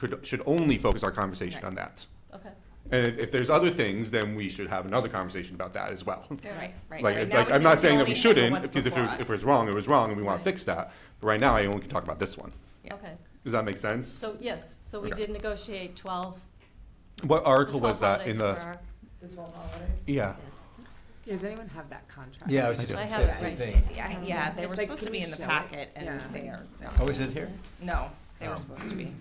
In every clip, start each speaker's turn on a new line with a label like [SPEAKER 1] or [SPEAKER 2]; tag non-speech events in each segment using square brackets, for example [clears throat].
[SPEAKER 1] could, should only focus our conversation on that.
[SPEAKER 2] Okay,
[SPEAKER 1] And if, if there's other things, then we should have another conversation about that as well.
[SPEAKER 2] all right.
[SPEAKER 3] Right. right
[SPEAKER 1] Like,
[SPEAKER 3] now
[SPEAKER 1] like,
[SPEAKER 3] we
[SPEAKER 1] I'm
[SPEAKER 3] can
[SPEAKER 1] not saying that
[SPEAKER 3] only
[SPEAKER 1] we
[SPEAKER 3] handle
[SPEAKER 1] shouldn't,
[SPEAKER 3] what's
[SPEAKER 1] because if it
[SPEAKER 3] before
[SPEAKER 1] was, if it
[SPEAKER 3] us.
[SPEAKER 1] was wrong, it was wrong, and we want
[SPEAKER 2] Right.
[SPEAKER 1] to fix that. But right now, I only can talk about this one.
[SPEAKER 3] Yeah.
[SPEAKER 2] Okay,
[SPEAKER 1] Does that make sense?
[SPEAKER 2] so, yes, so we
[SPEAKER 1] Okay.
[SPEAKER 2] did negotiate twelve,
[SPEAKER 1] What article
[SPEAKER 2] twelve
[SPEAKER 1] was that in
[SPEAKER 2] holidays for
[SPEAKER 1] the,
[SPEAKER 2] our-
[SPEAKER 1] yeah,
[SPEAKER 4] Does anyone have that contract?
[SPEAKER 5] Yeah, I was just
[SPEAKER 1] do.
[SPEAKER 2] I
[SPEAKER 5] gonna
[SPEAKER 2] have
[SPEAKER 5] say
[SPEAKER 2] it
[SPEAKER 5] the same
[SPEAKER 2] right
[SPEAKER 5] thing.
[SPEAKER 3] Yeah, yeah, they
[SPEAKER 4] It's
[SPEAKER 3] were
[SPEAKER 4] like,
[SPEAKER 3] supposed
[SPEAKER 4] can
[SPEAKER 3] to
[SPEAKER 4] we
[SPEAKER 3] be in the
[SPEAKER 4] show it?
[SPEAKER 3] packet and
[SPEAKER 4] Yeah.
[SPEAKER 3] they are,
[SPEAKER 5] Oh, is it here?
[SPEAKER 3] no, they were
[SPEAKER 5] Oh.
[SPEAKER 3] supposed to be.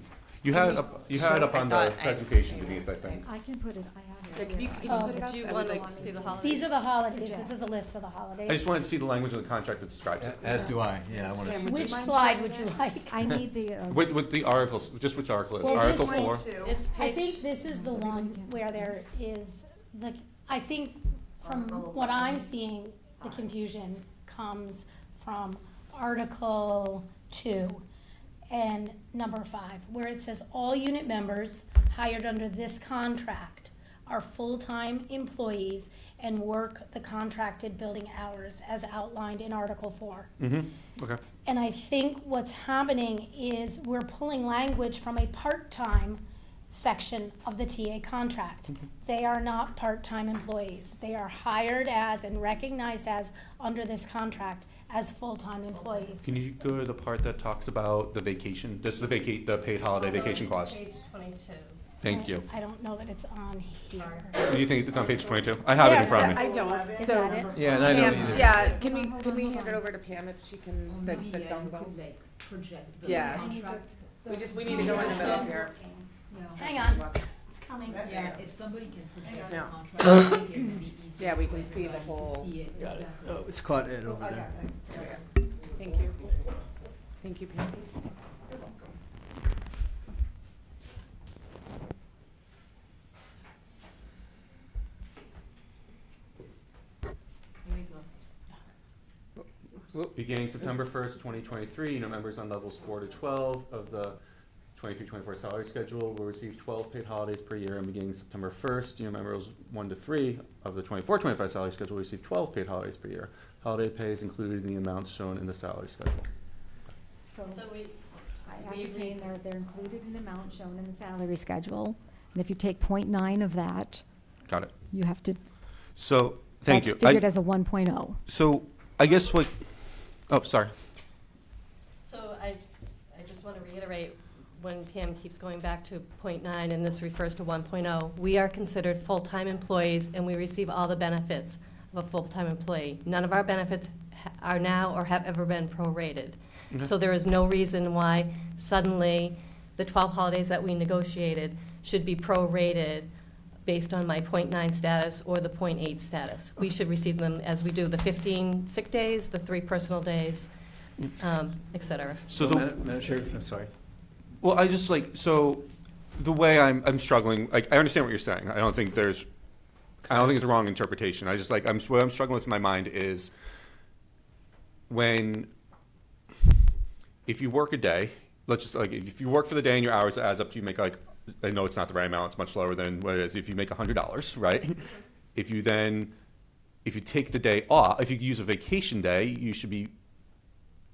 [SPEAKER 1] you had, it up- you had it up
[SPEAKER 3] I
[SPEAKER 1] on the
[SPEAKER 3] thought I-
[SPEAKER 1] presentation, Denise, I think.
[SPEAKER 6] I can put it, I
[SPEAKER 4] Yeah,
[SPEAKER 6] have it.
[SPEAKER 4] can you-
[SPEAKER 6] here.
[SPEAKER 4] can you
[SPEAKER 6] Um,
[SPEAKER 4] put it
[SPEAKER 2] Do
[SPEAKER 4] up?
[SPEAKER 2] you
[SPEAKER 4] I would
[SPEAKER 2] want
[SPEAKER 4] like
[SPEAKER 2] to
[SPEAKER 4] to
[SPEAKER 2] see
[SPEAKER 4] see
[SPEAKER 2] the
[SPEAKER 4] it.
[SPEAKER 2] holidays?
[SPEAKER 7] Oh. These are the holidays, this is a list of the holidays.
[SPEAKER 1] I just wanted to see the language in the contract that describes it.
[SPEAKER 5] As do I, yeah, I wanna.
[SPEAKER 4] Yeah,
[SPEAKER 5] s-
[SPEAKER 4] we-
[SPEAKER 7] Which
[SPEAKER 4] Would you mind
[SPEAKER 7] slide
[SPEAKER 6] showing
[SPEAKER 7] would you
[SPEAKER 6] that?
[SPEAKER 7] like?
[SPEAKER 6] I need the, uh,
[SPEAKER 1] With, with the articles, just which article is it?
[SPEAKER 7] Well,
[SPEAKER 1] Article
[SPEAKER 7] this
[SPEAKER 1] four?
[SPEAKER 2] It's
[SPEAKER 7] I
[SPEAKER 2] page.
[SPEAKER 7] think this is the one where there is the, I think from what I'm seeing, the confusion comes from Article two and number five, where it says all unit members hired under this contract are full-time employees and work the contracted building hours as outlined in Article four.
[SPEAKER 1] Mm-hmm, okay.
[SPEAKER 7] And I think what's happening is we're pulling language from a part-time section of the TA contract.
[SPEAKER 1] Mm-hmm.
[SPEAKER 7] They are not part-time employees. They are hired as and recognized as, under this contract, as full-time employees.
[SPEAKER 1] Can you go to the part that talks about the vacation, just the vacate, the paid holiday
[SPEAKER 2] So
[SPEAKER 1] vacation
[SPEAKER 2] it's
[SPEAKER 1] clause?
[SPEAKER 2] Page twenty-two.
[SPEAKER 1] Thank you.
[SPEAKER 7] I don't know that it's on here.
[SPEAKER 1] Do you think it's on page twenty-two? I have it in
[SPEAKER 7] There.
[SPEAKER 1] front of me.
[SPEAKER 4] I don't,
[SPEAKER 7] Is
[SPEAKER 4] so.
[SPEAKER 7] that it?
[SPEAKER 5] Yeah, and I don't
[SPEAKER 4] Pam,
[SPEAKER 5] either.
[SPEAKER 4] Yeah, can we,
[SPEAKER 6] Hold on,
[SPEAKER 4] can we
[SPEAKER 6] hold
[SPEAKER 4] hand it
[SPEAKER 6] on.
[SPEAKER 4] over to Pam if she can, the,
[SPEAKER 8] Maybe
[SPEAKER 4] the
[SPEAKER 8] I
[SPEAKER 4] dongle?
[SPEAKER 8] could, like, project the
[SPEAKER 4] Yeah.
[SPEAKER 8] contract.
[SPEAKER 4] We just, we need to go in the middle here.
[SPEAKER 8] Yeah.
[SPEAKER 7] Hang on, it's coming.
[SPEAKER 8] Yeah, if somebody can project the
[SPEAKER 4] No.
[SPEAKER 8] contract, I think it can
[SPEAKER 4] [coughs]
[SPEAKER 8] be easier
[SPEAKER 4] Yeah, we
[SPEAKER 8] for
[SPEAKER 4] can see the
[SPEAKER 8] everybody to
[SPEAKER 4] whole-
[SPEAKER 8] see it,
[SPEAKER 5] Got it.
[SPEAKER 8] exactly.
[SPEAKER 5] Oh, it's caught it over there.
[SPEAKER 4] Thank you. Thank you, Pam.
[SPEAKER 8] There you go.
[SPEAKER 1] Beginning September first, twenty twenty-three, you know, members on levels four to twelve of the 23-24 salary schedule will receive twelve paid holidays per year, and beginning September first, you know, members one to three of the 24-25 salary schedule will receive twelve paid holidays per year. Holiday pay is included in the amounts shown in the salary schedule.
[SPEAKER 6] So
[SPEAKER 2] So we,
[SPEAKER 6] I
[SPEAKER 2] we
[SPEAKER 6] ascertained
[SPEAKER 2] take-
[SPEAKER 6] they're, they're included in the amount shown in the salary schedule. And if you take 0.9 of that,
[SPEAKER 1] Got it.
[SPEAKER 6] you have to,
[SPEAKER 1] So, thank
[SPEAKER 6] that's
[SPEAKER 1] you.
[SPEAKER 6] figured as a one oh.
[SPEAKER 1] So, I guess what, oh, sorry.
[SPEAKER 2] so I, I just want to reiterate, when Pam keeps going back to point nine, and this refers to one oh, we are considered full-time employees, and we receive all the benefits of a full-time employee. None of our benefits ha- are now or have ever been prorated. So there is no reason why suddenly the 12 holidays that we negotiated should be prorated based on my .9 status or the .8 status. We should receive them as we do the 15 sick days, the three personal days, um, et cetera.
[SPEAKER 1] So the-
[SPEAKER 5] Madam Madam Chair, I'm sorry.
[SPEAKER 1] Well, I just like so the way I'm I'm struggling. Like I understand what you're saying. I don't think there's, I don't think it's a wrong interpretation. I just like I'm what I'm struggling with in my mind is when if you work a day, let's just like if you work for the day and your hours adds up to you make like I know it's not the right amount. It's much lower than what it is. If you make hundred dollars, right? If you then if you take the day off, if you use a vacation day, you should be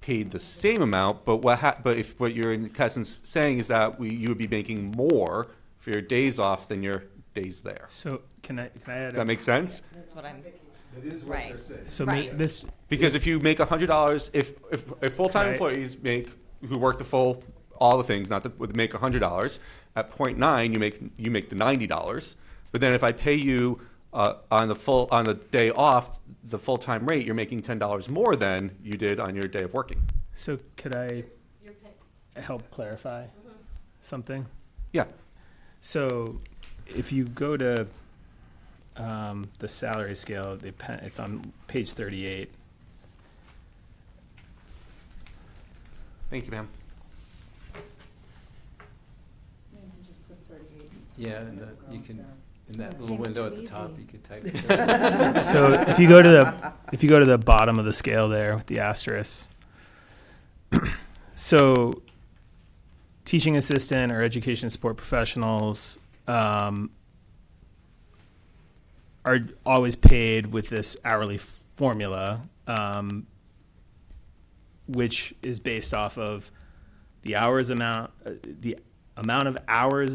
[SPEAKER 1] paid the same amount, but what ha- but if what you're in essence saying is that we, you would be making more for your days off than your days there.
[SPEAKER 9] So can I can I
[SPEAKER 1] Does
[SPEAKER 9] add?
[SPEAKER 1] that
[SPEAKER 9] up?
[SPEAKER 1] make sense?
[SPEAKER 3] That's what I'm,
[SPEAKER 10] That is what
[SPEAKER 3] Right.
[SPEAKER 10] they're saying.
[SPEAKER 9] so ma-
[SPEAKER 3] Right.
[SPEAKER 9] this
[SPEAKER 1] Because if you make hundred dollars, if if, if full time
[SPEAKER 9] Right.
[SPEAKER 1] employees make who work the full all the things, not the would make hundred dollars at point nine, you make you make the ninety dollars. But then if I pay you uh, on the full on the day off the full time rate, you're making ten dollars more than you did on your day of working.
[SPEAKER 9] so could I
[SPEAKER 2] You're paying-
[SPEAKER 9] help clarify
[SPEAKER 8] Mm-hmm.
[SPEAKER 9] something?
[SPEAKER 1] Yeah.
[SPEAKER 9] So if you go to um, the salary scale, they pen, it's on page thirty-eight.
[SPEAKER 1] Thank you, ma'am.
[SPEAKER 5] Yeah, and that- you can, in that
[SPEAKER 6] That
[SPEAKER 5] little
[SPEAKER 6] seems
[SPEAKER 5] window
[SPEAKER 6] too
[SPEAKER 5] at the top,
[SPEAKER 6] easy.
[SPEAKER 5] you could type. it.
[SPEAKER 9] so if you go to the if you go to the bottom of the scale there with the asterisk [clears throat] so teaching assistant or education support professionals um, are always paid with this hourly formula um, which is based off of the hours amount uh, the amount of hours